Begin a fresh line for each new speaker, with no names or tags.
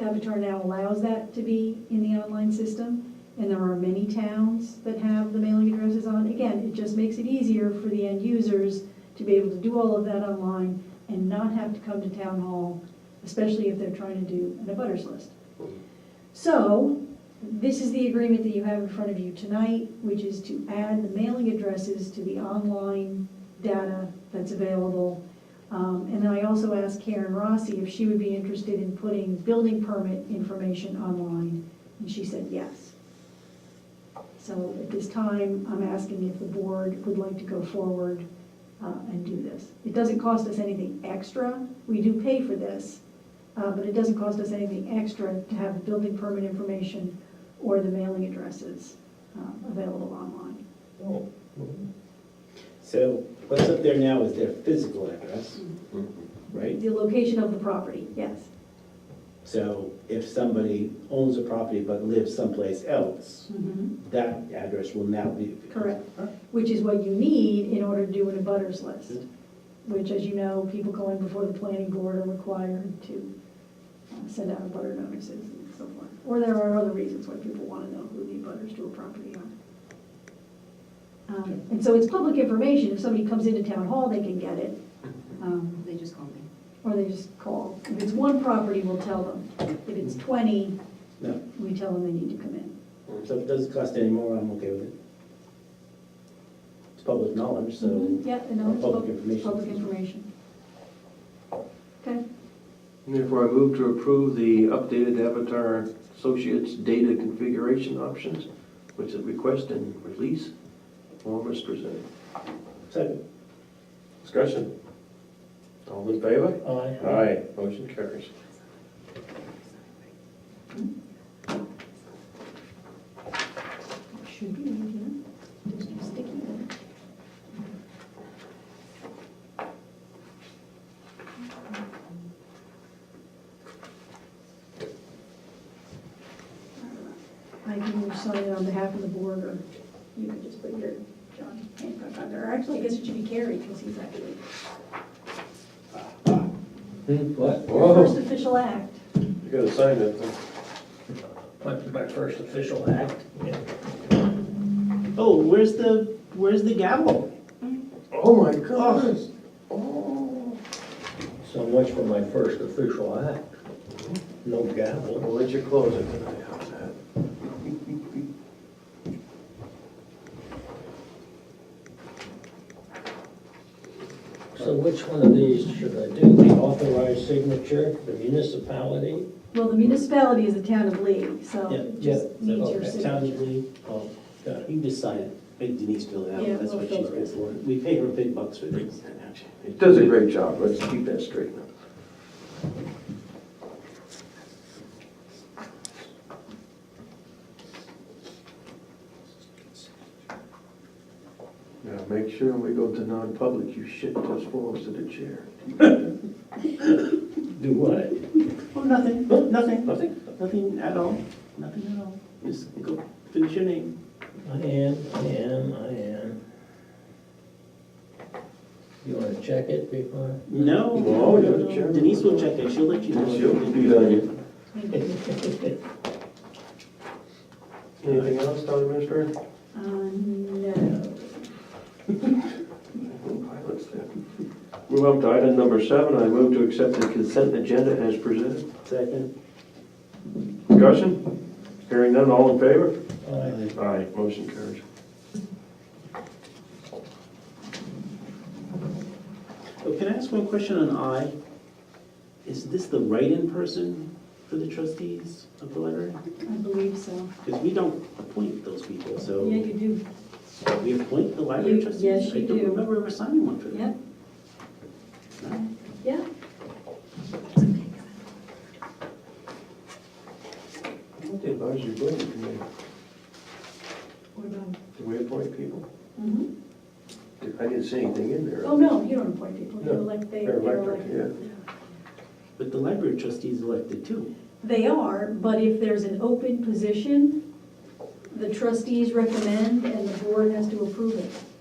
Avatar now allows that to be in the online system, and there are many towns that have the mailing addresses on. Again, it just makes it easier for the end users to be able to do all of that online and not have to come to town hall, especially if they're trying to do an abutters list. So, this is the agreement that you have in front of you tonight, which is to add the mailing addresses to the online data that's available. Um, And I also asked Karen Rossi if she would be interested in putting building permit information online, and she said yes. So at this time, I'm asking if the board would like to go forward uh, and do this. It doesn't cost us anything extra, we do pay for this, uh, but it doesn't cost us anything extra to have building permit information or the mailing addresses um, available online.
So what's up there now is their physical address, right?
The location of the property, yes.
So if somebody owns a property but lives someplace else, that address will now be.
Correct, which is what you need in order to do an abutters list, which, as you know, people going before the planning board are required to uh, send out abutter notices and so forth. Or there are other reasons why people want to know who the abutters to a property are. Um, And so it's public information, if somebody comes into town hall, they can get it, um,
They just called me.
or they just call. If it's one property, we'll tell them. If it's 20,
No,
we tell them they need to come in.
so if it doesn't cost any more, I'm okay with it. It's public knowledge, so. uh,
Yeah, and no, it's
Public
pub- it's
information.
public information. Okay.
Therefore, I move to approve the updated Avatar Associates data configuration options, which is request and release form is presented.
Second.
Discussion. All in favor?
Mm-hmm.
Aye.
Aye. Motion carries.
Should be, in here. There's no sticky note. I can either sign it on behalf of the board, or you could just put your John Hancock on there. Or Actually, I guess it should be Carrie, because he's actually
What?
your first official act.
You gotta sign that thing.
My, my first official act.
Oh, where's the, where's the gavel?
Oh, my goodness. Oh.
So much for my first official act. No gavel.
We'll let you close it tonight. How's that?
So which one of these should I do? The authorized signature, the municipality?
Well, the municipality is the town of Lee, so
Yeah,
it just
yeah, Oh,
needs your
okay.
signature.
Sounds really, oh,
Got it.
you can just sign it. Make Denise fill it
Yeah,
out. That's
we'll
what
fill
she's
it
good
out.
for. We pay her big bucks for this.
It does a great job, let's keep that straight now. Now, make sure when we go to non-public, you shit just falls to the chair.
Do what? Oh, nothing, Oh, nothing, nothing, nothing at all, nothing at all. Just go finish your name.
I am, I am, I am. You wanna check it before?
No.
No, Oh, you're the chairman.
Denise will check it, she'll let you know.
She'll beat on you.
Thank you.
Anything else, town administrator?
Uh, no.
Move on to item number seven, I move to accept the consent agenda as presented.
Second.
Discussion? Hearing none, all in favor?
Aye.
Aye, motion carries.
Oh, can I ask one question on I? Is this the write-in person for the trustees of the library?
I believe so.
Because we don't appoint those people, so
Yeah, you do.
we appoint the library
You-
trustees?
yes, you
I
do.
don't remember ever signing one for them.
Yeah,
No?
yeah.
What the advisory building committee,
What about?
do we appoint people?
Mhm.
I didn't see anything in there.
Oh, no, you don't appoint people. They're
No,
elect, they-
They're
they're
elected,
elected.
yeah.
But the library trustees elected too.
They are, but if there's an open position, the trustees recommend and the board has to approve it.
Oh,